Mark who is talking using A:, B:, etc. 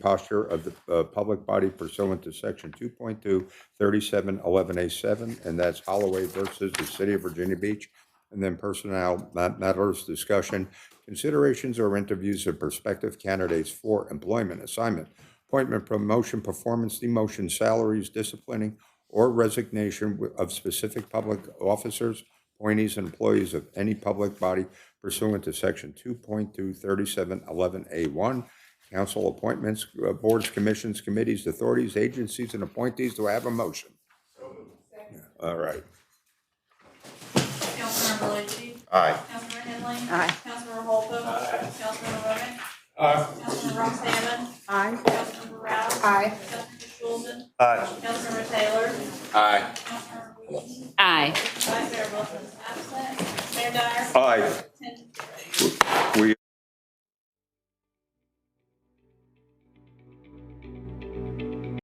A: posture of the uh, public body pursuant to section 2.2, 3711A7, and that's Holloway versus the City of Virginia Beach. And then personnel ma- matters discussion, considerations or interviews of prospective candidates for employment, assignment, appointment, promotion, performance, demotion, salaries, disciplining, or resignation wi- of specific public officers, appointees, and employees of any public body pursuant to Section 2.23711A1, council appointments, uh, boards, commissions, committees, authorities, agencies, and appointees. Do I have a motion? Yeah, All right.
B: Councilmember Luci.
A: Aye.
B: Councilmember Henley.
C: Aye.
B: Councilmember Holton. Aye. Councilmember Remick.
D: Aye.
B: Councilmember Ron Salmon.
C: Aye.
B: Councilmember Rouse.
C: Aye.
B: Councilmember Schulman.
D: Aye.
B: Councilmember Taylor.
D: Aye.
B: Councilmember Wheaton.
E: Aye.
B: Vice Mayor Wilson is absent. Mayor Dyer.
A: Aye.